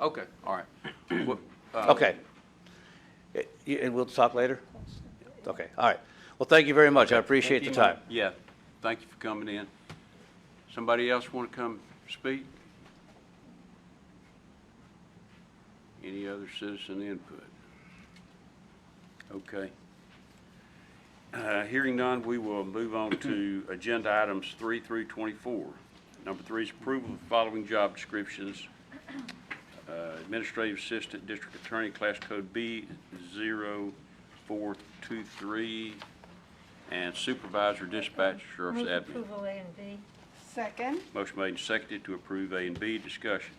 Okay, all right. What- uh, Okay. Y- y- And we'll talk later? Okay, all right. Well, thank you very much. I appreciate the time. Yeah, thank you for coming in. Somebody else want to come speak? Any other citizen input? Okay. Uh, Hearing none, we will move on to agenda items three through 24. Number three is approval of following job descriptions. Uh, Administrative Assistant District Attorney, Class Code B 0423, and Supervisor Dispatcher, Sheriff's Move Admin. approval A and B. Second. Motion made and seconded to approve A and B. Discussion.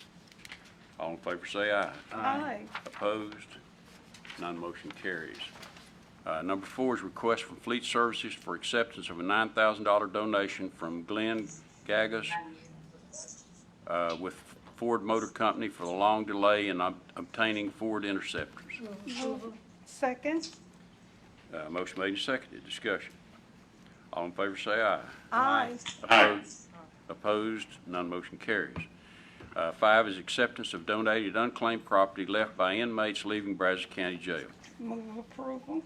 All in favor say aye. Aye. Opposed? None motion carries. Uh, Number four is request from Fleet Services for acceptance of a $9,000 donation from Glenn Gagas uh, with Ford Motor Company for the long delay in ob- obtaining Ford Interceptors. Second. Uh, Motion made and seconded. Discussion. All in favor say aye. Aye. Opposed? Opposed? None motion carries. Uh, Five is acceptance of donated unclaimed property left by inmates leaving Brazos County Jail. Move approval.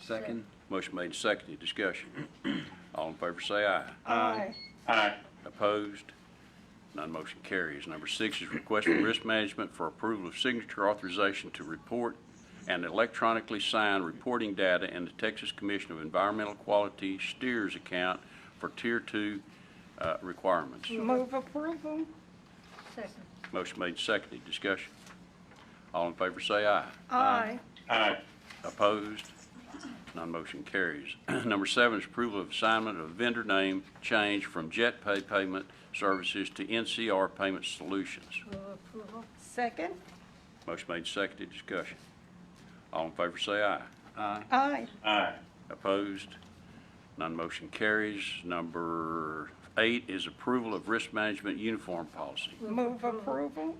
Second. Motion made and seconded. Discussion. All in favor say aye. Aye. Opposed? None motion carries. Number six is request from Risk Management for approval of signature authorization to report and electronically sign reporting data in the Texas Commission of Environmental Quality Steers account for Tier 2 uh, requirements. Move approval. Second. Motion made, seconded, discussion. All in favor say aye. Aye. Opposed? Non-motion carries. Number seven is approval of assignment of vendor name change from Jet Pay Payment Services to NCR Payment Solutions. Move approval. Second. Motion made, seconded, discussion. All in favor say aye. Aye. Opposed? Non-motion carries. Number eight is approval of risk management uniform policy. Move approval.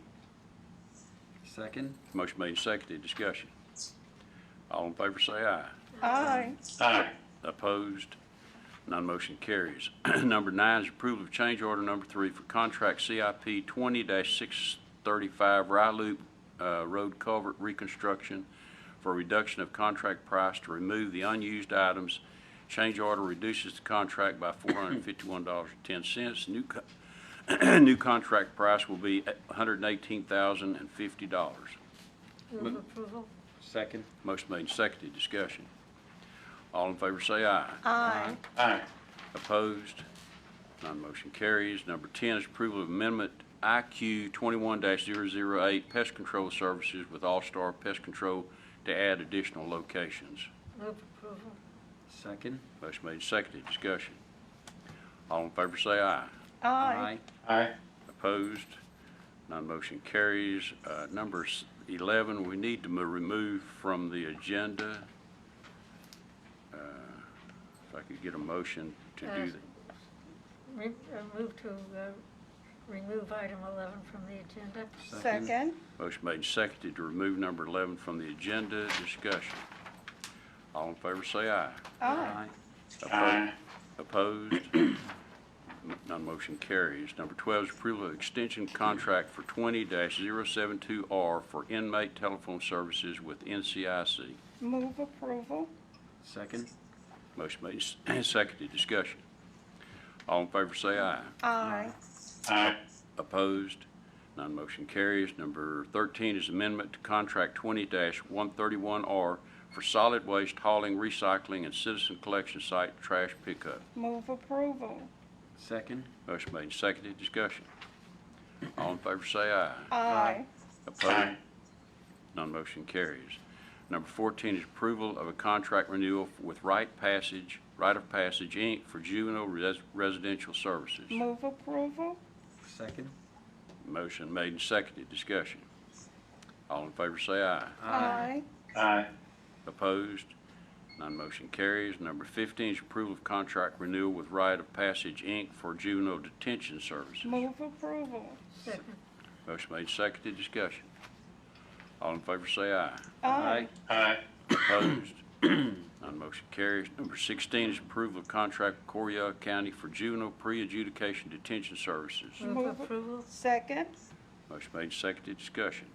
Second. Motion made, seconded, discussion. All in favor say aye. Aye. Opposed? None motion carries. Number nine is approval of change order number three for contract CIP 20-635 Rye Loop uh, Road Culvert Reconstruction for reduction of contract price to remove the unused items. Change order reduces the contract by $451.10. New co- new contract price will be $118,050. Move approval. Second. Motion made and seconded. Discussion. All in favor say aye. Aye. Opposed? None motion carries. Number 10 is approval of amendment IQ 21-008 Pest Control Services with All-Star Pest Control to add additional locations. Move approval. Second. Motion made, and seconded, discussion. All in favor say aye. Aye. Opposed? None motion carries. Uh, Number s- 11, we need to mo- remove from the agenda. Uh, If I could get a motion to do Uh, that. Re- uh, Move to uh, remove item 11 from the agenda. Second. Motion made and seconded to remove number 11 from the agenda. Discussion. All in favor say aye. Aye. Aye. Opposed? None motion carries. Number 12 is approval of extension contract for 20-072R for inmate telephone services with NCIC. Move approval. Second. Motion made and seconded. Discussion. All in favor say aye. Aye. Opposed? None motion carries. Number 13 is amendment to contract 20-131R for solid waste hauling, recycling, and citizen collection site trash pickup. Move approval. Second. Motion made and seconded. Discussion. All in favor say aye. Aye. Opposed? None motion carries. Number 14 is approval of a contract renewal with Right Passage, Right of Passage, Inc. for juvenile res- residential services. Move approval. Second. Motion made and seconded. Discussion. All in favor say aye. Aye. Opposed? None motion carries. Number 15 is approval of contract renewal with Rite of Passage, Inc. for juvenile detention services. Move approval. Second. Motion made, seconded, discussion. All in favor say aye. Aye. Opposed? None motion carries. Number 16 is approval of contract with Correa County for juvenile pre-adjudication detention services. Move Move- approval. Second. Motion made, seconded, discussion.